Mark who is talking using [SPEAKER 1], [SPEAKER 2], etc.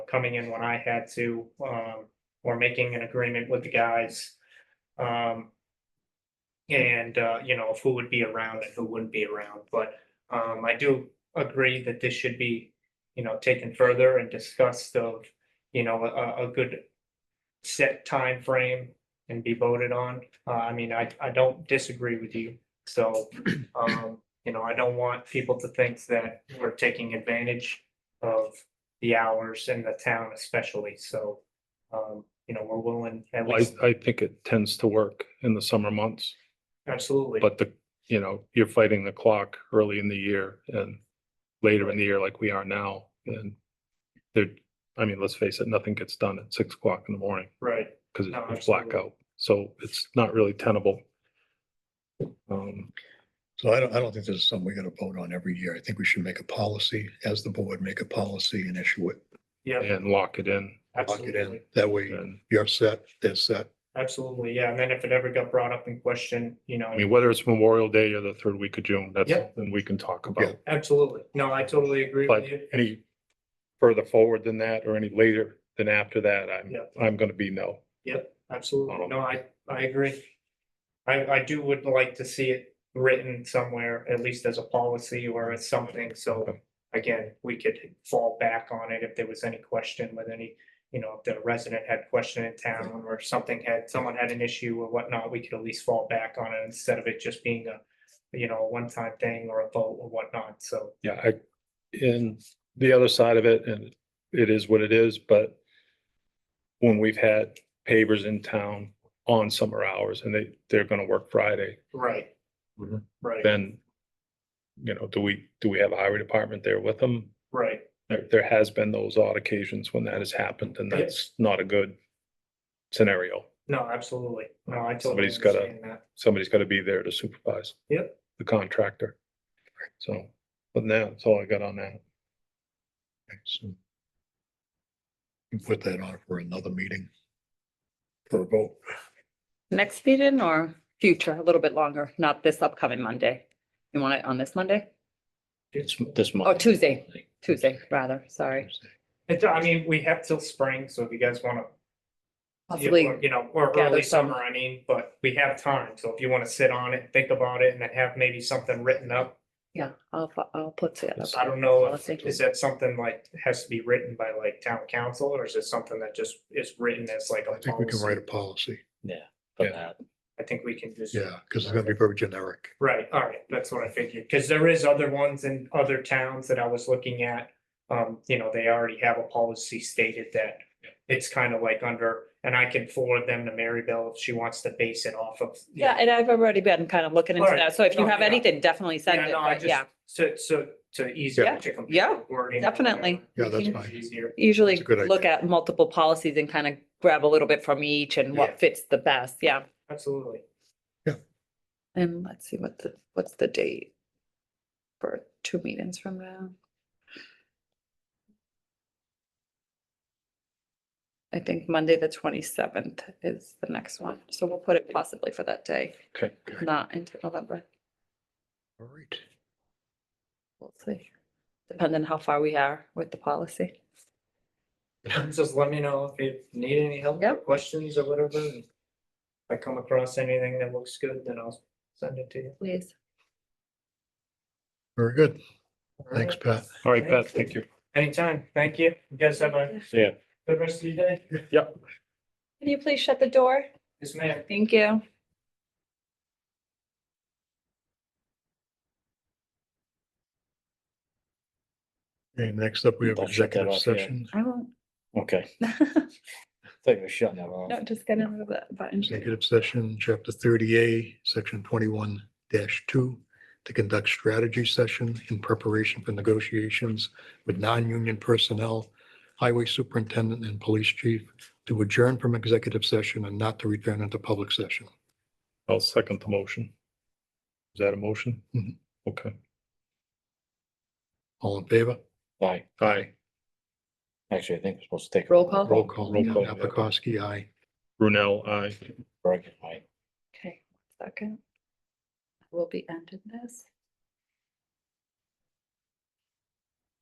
[SPEAKER 1] coming in when I had to, um, or making an agreement with the guys. Um. And, uh, you know, of who would be around and who wouldn't be around, but, um, I do agree that this should be. You know, taken further and discussed of, you know, a, a good. Set time frame and be voted on. Uh, I mean, I, I don't disagree with you, so, um, you know, I don't want people to think that we're taking advantage of the hours in the town especially, so, um, you know, we're willing at
[SPEAKER 2] Well,
[SPEAKER 1] least,
[SPEAKER 2] I, I think it tends to work in the summer months,
[SPEAKER 1] absolutely.
[SPEAKER 2] but the, you know, you're fighting the clock early in the year and later in the year like we are now, and there, I mean, let's face it, nothing gets done at six o'clock in the morning
[SPEAKER 1] Right,
[SPEAKER 2] because
[SPEAKER 1] No,
[SPEAKER 2] it's
[SPEAKER 1] absolutely.
[SPEAKER 2] blackout, so it's not really tenable. Um,
[SPEAKER 3] So I don't, I don't think this is something we gotta vote on every year. I think we should make a policy, as the board, make a policy and issue it.
[SPEAKER 1] yeah,
[SPEAKER 2] and lock it in,
[SPEAKER 3] Lock it in.
[SPEAKER 1] absolutely,
[SPEAKER 3] That way
[SPEAKER 2] and,
[SPEAKER 3] you're set, they're set.
[SPEAKER 1] absolutely, yeah, and then if it ever got brought up in question, you know.
[SPEAKER 2] I mean, whether it's Memorial Day or the third week of June, that's
[SPEAKER 1] Yeah.
[SPEAKER 2] something we can talk about.
[SPEAKER 1] Absolutely, no, I totally agree
[SPEAKER 2] But
[SPEAKER 1] with you,
[SPEAKER 2] any further forward than that or any later than after that, I'm,
[SPEAKER 1] Yeah.
[SPEAKER 2] I'm gonna be no.
[SPEAKER 1] absolutely,
[SPEAKER 2] Um,
[SPEAKER 1] no, I, I agree. I, I do would like to see it written somewhere, at least as a policy or as something, so.
[SPEAKER 2] Okay.
[SPEAKER 1] Again, we could fall back on it if there was any question with any, you know, if the resident had question in town or something had, someone had an issue or whatnot, we could at least fall back on it instead of it just being a. You know, a one-time thing or a vote or whatnot, so,
[SPEAKER 2] Yeah, I, in the other side of it, and it is what it is, but when we've had pavers in town on summer hours and they, they're gonna work Friday,
[SPEAKER 1] right.
[SPEAKER 3] Mhm.
[SPEAKER 1] Right,
[SPEAKER 2] then, you know, do we, do we have a highway department there with them?
[SPEAKER 1] right,
[SPEAKER 2] There, there has been those odd occasions when that has happened and
[SPEAKER 1] Yeah.
[SPEAKER 2] that's not a good scenario.
[SPEAKER 1] no, absolutely, no, I totally
[SPEAKER 2] Somebody's gotta-
[SPEAKER 1] understand that,
[SPEAKER 2] Somebody's gotta be there to supervise.
[SPEAKER 1] Yep.
[SPEAKER 2] The contractor. So, but now, that's all I got on that.
[SPEAKER 3] Okay, so we Put that on for another meeting. For a vote.
[SPEAKER 4] Next meeting or future, a little bit longer, not this upcoming Monday? You want it on this Monday?
[SPEAKER 2] It's this
[SPEAKER 4] Oh,
[SPEAKER 2] month.
[SPEAKER 4] Tuesday, Tuesday, rather, sorry.
[SPEAKER 1] It, I mean, we have till spring, so if you guys wanna Yeah,
[SPEAKER 4] Possibly,
[SPEAKER 1] or, You know, or
[SPEAKER 4] gather
[SPEAKER 1] early
[SPEAKER 4] some-
[SPEAKER 1] summer, I mean, but we have time, so if you wanna sit on it, think about it, and then have maybe something written up.
[SPEAKER 4] yeah, I'll, fu- I'll put together.
[SPEAKER 1] I don't know, if-
[SPEAKER 4] Policy.
[SPEAKER 1] is that something like, has to be written by like town council, or is it something that just is written as like a
[SPEAKER 3] I think we can write
[SPEAKER 1] policy?
[SPEAKER 3] a policy.
[SPEAKER 5] for
[SPEAKER 2] Yeah.
[SPEAKER 5] that.
[SPEAKER 1] I think we can just.
[SPEAKER 3] Yeah, because it's gonna be very generic.
[SPEAKER 1] Right, all right, that's what I figured, because there is other ones in other towns that I was looking at. Um, you know, they already have a policy stated that it's kind of like under, and I can forward them to Mary Bell if she wants to base it off of. you know,
[SPEAKER 4] Yeah, and I've already been kind of looking into
[SPEAKER 1] Alright.
[SPEAKER 4] that, so if you
[SPEAKER 1] No,
[SPEAKER 4] have
[SPEAKER 1] yeah.
[SPEAKER 4] anything, definitely send
[SPEAKER 1] Yeah,
[SPEAKER 4] it,
[SPEAKER 1] no, I
[SPEAKER 4] but yeah,
[SPEAKER 1] just, so, so, to ease.
[SPEAKER 4] Yeah.
[SPEAKER 1] to compare
[SPEAKER 4] Yeah,
[SPEAKER 1] wording or
[SPEAKER 4] definitely.
[SPEAKER 3] Yeah, that's
[SPEAKER 4] You can
[SPEAKER 3] fine.
[SPEAKER 1] whatever, Easier,
[SPEAKER 4] Usually
[SPEAKER 3] That's a good
[SPEAKER 4] look
[SPEAKER 3] idea.
[SPEAKER 4] at multiple policies and kind of grab a little bit from each and
[SPEAKER 1] Yeah.
[SPEAKER 4] what fits the best, yeah.
[SPEAKER 1] absolutely.
[SPEAKER 4] And let's see what the, what's the date for two meetings from now? I think Monday, the twenty-seventh is the next one, so we'll put it possibly for that day,
[SPEAKER 2] Okay.
[SPEAKER 4] not into November,
[SPEAKER 3] All right.
[SPEAKER 4] we'll see. Depending how far we are with the policy.
[SPEAKER 1] Just let me know if you need any help, or
[SPEAKER 4] Yep.
[SPEAKER 1] questions or whatever. and If I come across anything that looks good, then I'll send it to you.
[SPEAKER 4] Please.
[SPEAKER 3] Very good.
[SPEAKER 1] All
[SPEAKER 3] Thanks,
[SPEAKER 1] right?
[SPEAKER 3] Pat.
[SPEAKER 2] All right, Pat, thank you.
[SPEAKER 1] Anytime, thank you. You guys have a
[SPEAKER 2] Yeah.
[SPEAKER 1] good rest of your day.
[SPEAKER 4] Can you please shut the door?
[SPEAKER 1] Yes, ma'am.
[SPEAKER 4] Thank you.
[SPEAKER 3] Okay, next up, we have
[SPEAKER 5] Don't shut that off
[SPEAKER 3] executive
[SPEAKER 5] yet.
[SPEAKER 3] session.
[SPEAKER 4] I won't.
[SPEAKER 5] Okay,
[SPEAKER 4] No,
[SPEAKER 5] thought you were shutting that off.
[SPEAKER 4] just get rid of that button.
[SPEAKER 3] Executive session, chapter thirty A, section twenty-one two, to conduct strategy session in preparation for negotiations with non-union personnel, highway superintendent and police chief to adjourn from executive session and not to return into public session.
[SPEAKER 2] I'll second the motion. Is that a motion? Mm-hmm.
[SPEAKER 3] Mhm.
[SPEAKER 2] Okay.
[SPEAKER 3] All in favor?
[SPEAKER 5] Aye.
[SPEAKER 2] Aye.
[SPEAKER 5] Actually, I think we're supposed to take. a
[SPEAKER 4] Roll call?
[SPEAKER 3] Roll call.
[SPEAKER 2] Roll call, yeah.
[SPEAKER 3] Apikowski, aye.
[SPEAKER 2] Brunel, aye.
[SPEAKER 5] break. Aye.
[SPEAKER 4] Okay, second. We'll be ending this.